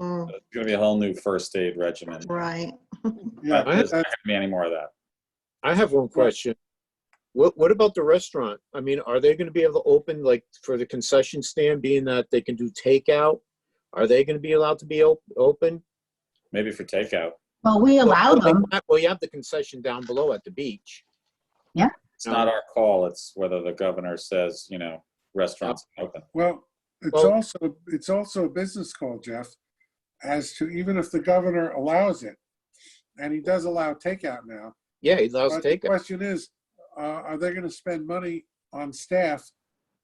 Mm, It's gonna be a whole new first aid regimen. Right. Yeah, There's I- not gonna be any more of that. I have one question. What, what about the restaurant? I mean, are they gonna be able to open, like, for the concession stand, being that they can do takeout? Are they gonna be allowed to be op- open? Maybe for takeout. Well, we allowed them. Well, you have the concession down below at the beach. It's not our call. It's whether the governor says, you know, restaurants open. well, it's Well- also, it's also a business call, Jeff, as to even if the governor allows it, and he does allow takeout now. Yeah, he allows But the takeout. question is, uh, are they gonna spend money on staff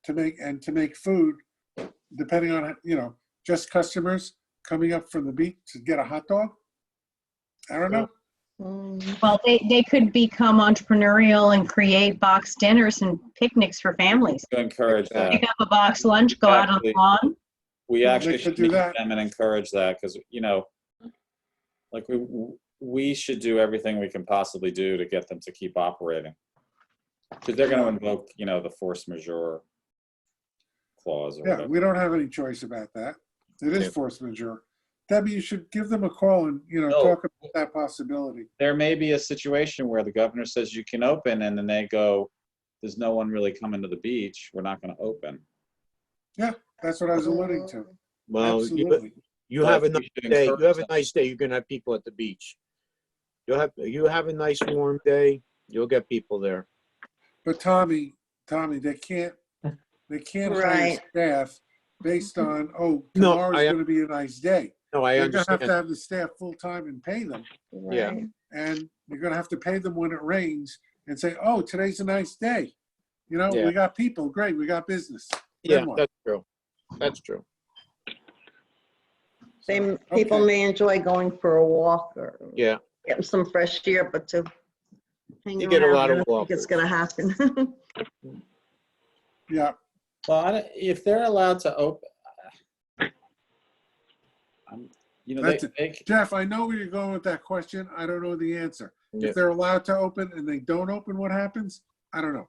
to make, and to make food, depending on, you know, just customers coming up from the beach to get a hot dog? I don't know. Mm, Well, they, they could become entrepreneurial and create box dinners and picnics for families. To encourage that. Pick up a box lunch, go out on the lawn. We Well, actually they should could meet do them that. and encourage that because, you know, like we, we should do everything we can possibly do to get them to keep operating. Because they're gonna invoke, you know, the force majeure clause or Yeah, whatever. we don't have any choice about that. It Yeah. is force majeure. Debbie, you should give them a call and, you know, No. Oh, talk about that possibility. There may be a situation where the governor says you can open and then they go, there's no one really coming to the beach. We're not gonna open. That's what I was alluding to. Well, Oh, you, Absolutely. you have a But nice we should day. encourage You have a that. nice day. You're gonna have people at the beach. You'll have, you have a nice warm day. You'll get people there. But Tommy, Tommy, they can't, they can't hire Right. staff based on, oh, No, tomorrow's I- gonna be a nice day. No, I You're gonna have to understand. have the staff full-time and pay them, Yeah. right. and you're gonna have to pay them when it rains and say, oh, today's a nice day. You know, Yeah. we got people, great, we got business. Yeah, Good one. that's true. That's true. They, m- Okay. people may enjoy going for a walk or Yeah. getting some fresh air, but to hang You get a around, lot I of don't think It's gonna happen. Yeah, Well, I don't- if they're allowed to open, you know, they, That's a- they, c- Jeff, I know where you're going with that question, I don't know the answer. Yeah. If they're allowed to open and they don't open, what happens? I don't know.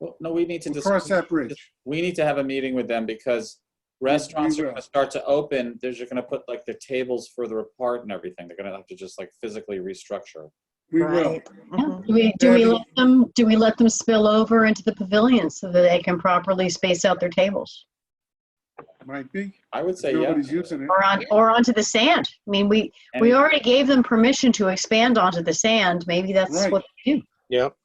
well, no, we need to We'll just. cross that bridge. We need to have a meeting with them because restaurants are will. gonna start to open, they're just gonna put like their tables further apart and everything. They're gonna have to just like physically restructure. We will. Right. Mhm. Do we, do we let them, do we let them spill over into the pavilion so that they can properly space out their tables? Might be. I would say, yeah. Nobody's using it. Or on, or onto the sand? I mean, we, And we already gave them permission to expand onto the sand. Maybe that's Right. what they do. Yep.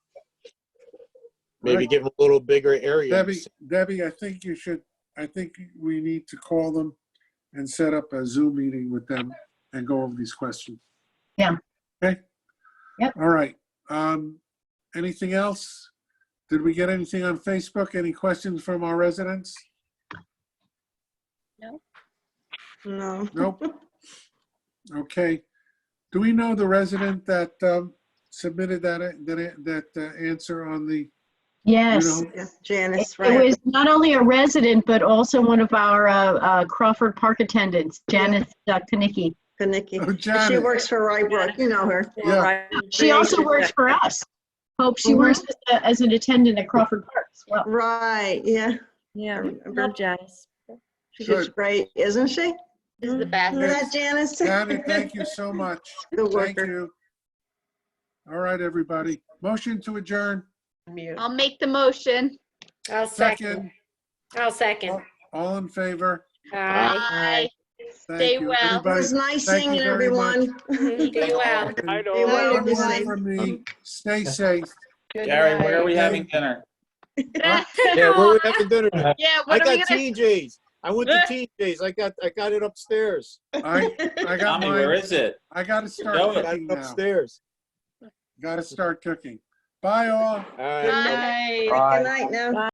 Maybe Right. give them a little bigger area. Debbie, Debbie, I think you should, I think we need to call them and set up a Zoom meeting with them and go over these questions. Yeah. Okay? Yep. All right. Um, anything else? Did we get anything on Facebook? Any questions from our residents? Mm-hmm. No. Nope. Okay. Do we know the resident that, um, submitted that, that, that uh, answer on the, Yes. know, Yeah, It Janice, it right. was not only a resident, but also one of our uh, uh, Crawford Park attendants, Janice uh, Kanicki. To Nikki. oh, She Janet? works for Rybrook, you know her. Yeah. Right. She also works for us. Hope she Mhm. works as a- as an attendant at Crawford Park as well. Right, yeah. I Yeah, remember. love Janice. She's Good. great, isn't she? She's the Isn't best. that Janice? Janet, thank you so much. The Thank worker. you. All right, everybody. Motion to adjourn. Mute. I'll make the motion. I'll Second, second. I'll second. all in favor? Aye. Bye. Thank Stay you. well. It was Everybody, nice Thank you seeing very much. everyone. Be well. I know. One more from me. Stay safe. Gary, where are we night. having dinner? Yeah, where we having dinner? tonight? Yeah, I what are we got gonna? TJ's. I went to TJ's. I got, I got it upstairs. I, I got Tommy, where mine. is it? I gotta Go start it. Got cooking it now. upstairs. Gotta start cooking. Bye all. All right. Bye. Good night now.